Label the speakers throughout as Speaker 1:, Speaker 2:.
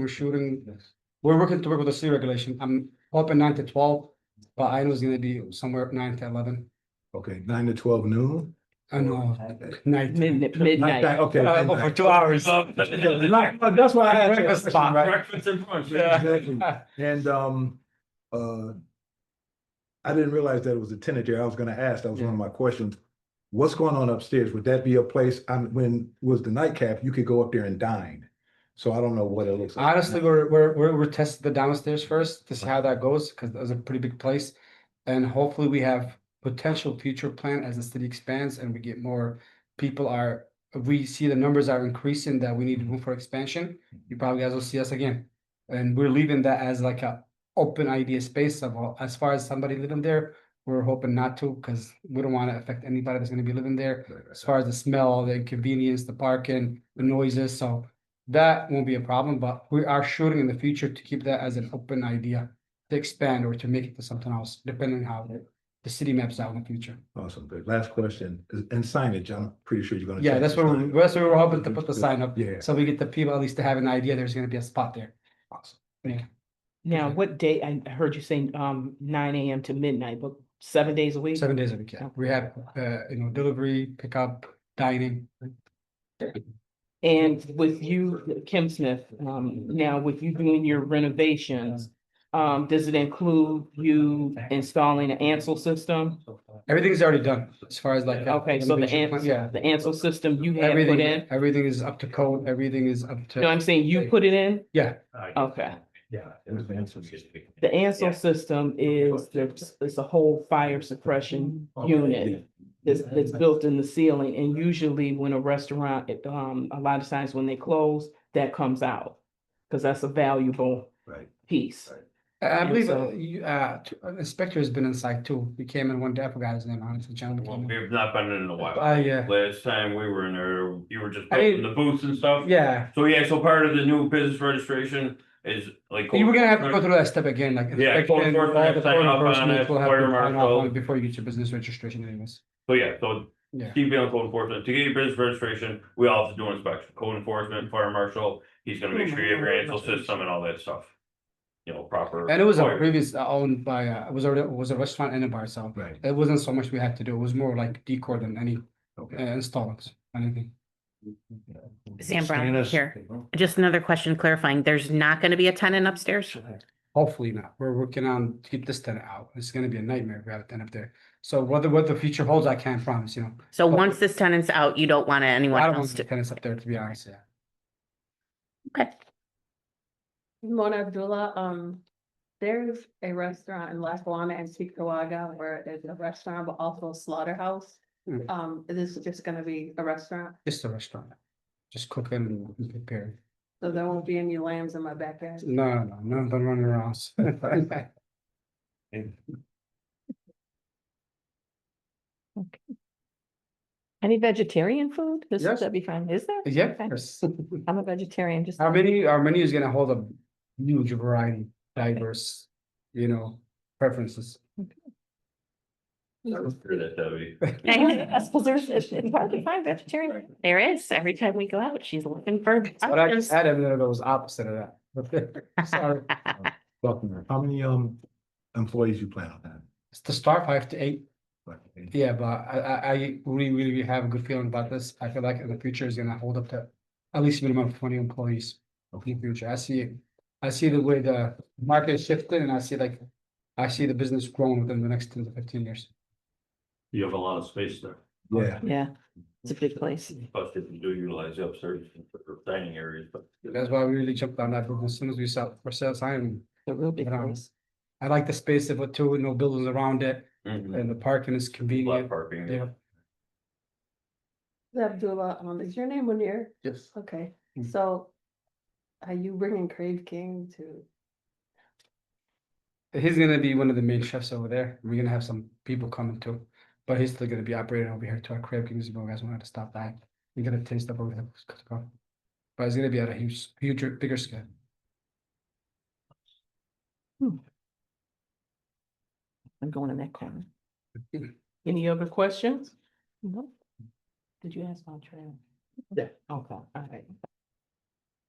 Speaker 1: We're shooting, we're working to work with the city regulation. I'm hoping nine to twelve, but I know it's gonna be somewhere nine to eleven.
Speaker 2: Okay, nine to twelve noon?
Speaker 1: I know, night.
Speaker 3: Midnight,
Speaker 2: Like that,
Speaker 3: midnight.
Speaker 2: Okay.
Speaker 1: Uh,
Speaker 2: then
Speaker 1: for
Speaker 2: that-
Speaker 1: two hours.
Speaker 2: Like, but That's why I had.
Speaker 1: Breakfast spot, right?
Speaker 4: Breakfast and brunch.
Speaker 1: Yeah.
Speaker 2: Exactly. And, um, uh, I didn't realize that it was a tenant there. I was gonna ask, that was one of my questions. What's going on upstairs? Would that be a place, um, when was the nightcap, you could go up there and dine? So I don't know what it looks like.
Speaker 1: Honestly, we're, we're, we're, we're testing the downstairs first to see how that goes, because that's a pretty big place. And hopefully we have potential future plan as the city expands and we get more people are, we see the numbers are increasing that we need room for expansion. You probably guys will see us again. And we're leaving that as like a open idea space of, uh, as far as somebody living there, we're hoping not to, because we don't want to affect anybody that's gonna be living there as far as the smell, the inconvenience, the parking, the noises, so that won't be a problem, but we are shooting in the future to keep that as an open idea to expand or to make it to something else, depending on how the city maps out in the future.
Speaker 2: Awesome, good. Last question, is- and signage, I'm pretty sure you're gonna.
Speaker 1: Yeah,
Speaker 2: check
Speaker 1: that's
Speaker 2: the
Speaker 1: what, we-
Speaker 2: signage.
Speaker 1: that's what we're hoping to put the sign up,
Speaker 2: Yeah.
Speaker 1: so we get the people at least to have an idea there's gonna be a spot there.
Speaker 3: Now, what day, I I heard you saying, um, nine AM to midnight, but seven days a week?
Speaker 1: Seven days a week, yeah. We have, uh, you know, delivery, pickup, dining.
Speaker 3: And with you, Kim Smith, um, now with you doing your renovations, um, does it include you installing an Ansel system?
Speaker 1: Everything's already done as far as like. uh,
Speaker 3: Okay, so the
Speaker 1: renovation plan-
Speaker 3: Ansel,
Speaker 1: Yeah.
Speaker 3: the Ansel system you had put
Speaker 1: Everything,
Speaker 3: in?
Speaker 1: everything is up to code, everything is up
Speaker 3: No,
Speaker 1: to,
Speaker 3: I'm saying you put it in?
Speaker 1: yeah.
Speaker 3: Okay.
Speaker 4: Yeah.
Speaker 3: The Ansel
Speaker 4: Yeah.
Speaker 3: system is, there's, it's a whole fire suppression
Speaker 5: Mm-hmm.
Speaker 2: Oh,
Speaker 3: unit. that's, that's built in the ceiling, and usually when a restaurant, it, um, a lot of times when they close, that comes out. Cause that's a valuable
Speaker 2: Right.
Speaker 3: piece.
Speaker 1: I I
Speaker 3: And
Speaker 1: believe uh,
Speaker 3: so-
Speaker 1: you, uh, t- uh, Inspector has been inside too. He came in one day, I forgot his name, honestly, gentleman.
Speaker 4: Well,
Speaker 1: came in.
Speaker 4: we've not been in a while.
Speaker 1: Uh, yeah,
Speaker 4: Last time we were in there, you were just
Speaker 1: I mean-
Speaker 4: building the booths and stuff.
Speaker 1: yeah.
Speaker 4: So yeah, so part of the new business registration is like.
Speaker 1: You were gonna have to go through that step again, like.
Speaker 4: Yeah, code
Speaker 1: inspection,
Speaker 4: enforcement,
Speaker 1: all the
Speaker 4: uh, sign
Speaker 1: code
Speaker 4: off on
Speaker 1: enforcement
Speaker 4: it,
Speaker 1: will have
Speaker 4: fire
Speaker 1: to sign off
Speaker 4: marshal.
Speaker 1: on it Before you get your business registration anyways.
Speaker 4: So yeah, so
Speaker 1: Yeah,
Speaker 4: keep being on code enforcement. To get your business registration, we all have to do inspection, code
Speaker 1: Mm-hmm.
Speaker 4: enforcement, fire marshal. He's gonna make sure you have your ansel system and all that stuff. You know, proper.
Speaker 1: and it was a
Speaker 4: required.
Speaker 1: previous uh, owned by, uh, it was already, it was a restaurant and a bar, so
Speaker 2: Right,
Speaker 1: it wasn't so much we had to do. It was more like decor than any uh,
Speaker 2: okay.
Speaker 1: installments, anything.
Speaker 5: Sam Brown
Speaker 2: Stannis-
Speaker 5: here. Just another question clarifying, there's not gonna be a tenant upstairs?
Speaker 1: Hopefully not. We're working on to keep this tenant out. It's gonna be a nightmare if we have a tenant up there. So whether, what the future holds, I can't promise, you know.
Speaker 5: So once this tenant's out, you don't want anyone
Speaker 1: Oh, I don't
Speaker 5: else
Speaker 1: want the
Speaker 5: to,
Speaker 1: tenants up there, to be honest, yeah.
Speaker 5: okay,
Speaker 6: Mona Abdullah, um, there's a restaurant in Lackawanna and Chickawaga where there's a restaurant, but also a slaughterhouse.
Speaker 1: Mm.
Speaker 6: Um, this is just gonna be a restaurant,
Speaker 1: Just a restaurant. Just cooking and preparing.
Speaker 6: so there won't be any lambs in my backyard.
Speaker 1: No, no, no, none of them running around.
Speaker 7: Any vegetarian food? This,
Speaker 1: Yes.
Speaker 7: that'd be fine, is there?
Speaker 1: Yeah,
Speaker 7: Okay.
Speaker 1: yes.
Speaker 7: I'm a vegetarian, just.
Speaker 1: Our menu, our menu is gonna hold a huge variety, diverse, you know, preferences.
Speaker 4: Sure that, Debbie.
Speaker 7: I suppose there's, it's it's hard to find vegetarian.
Speaker 5: there is, every time we go out, she's looking for.
Speaker 1: But I
Speaker 5: options.
Speaker 1: just added that it was opposite of that. Sorry,
Speaker 2: Buckner, How many, um, employees you plan on having?
Speaker 1: it's to start five to eight.
Speaker 2: Like,
Speaker 1: Yeah, but I, I, I really, really have a good feeling about this. I feel like in the future is gonna hold up to at least minimum of twenty employees. In the future, I see it, I see the way the market is shifting and I see like, I see the business growing within the next ten to fifteen years.
Speaker 4: You have a lot of space there.
Speaker 2: Yeah,
Speaker 7: Yeah, it's a big place.
Speaker 4: Plus, if you do utilize the upstairs for dining areas, but.
Speaker 1: That's why we really jumped on that book as soon as we saw for sales sign.
Speaker 7: It's a real big
Speaker 1: But, um,
Speaker 7: place.
Speaker 1: I like the space of it too, with no buildings around it
Speaker 4: Mhm.
Speaker 1: and the parking is
Speaker 4: Lot of
Speaker 1: convenient.
Speaker 4: parking.
Speaker 1: Yeah.
Speaker 6: Abdullah, um, is your name Munir?
Speaker 1: Yes.
Speaker 6: Okay,
Speaker 1: Mm.
Speaker 6: so are you bringing Crave King to?
Speaker 1: He's gonna be one of the main chefs over there. We're gonna have some people coming too. But he's still gonna be operating over here to our Crab Kings if you guys wanted to stop by. You're gonna taste of over there. But it's gonna be at a huge, huge, bigger scale.
Speaker 7: I'm going in that corner.
Speaker 3: Any other questions?
Speaker 7: Nope.
Speaker 3: Did you ask about trail?
Speaker 1: Yeah.
Speaker 3: Okay, all right.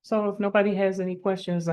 Speaker 3: So if nobody has any questions,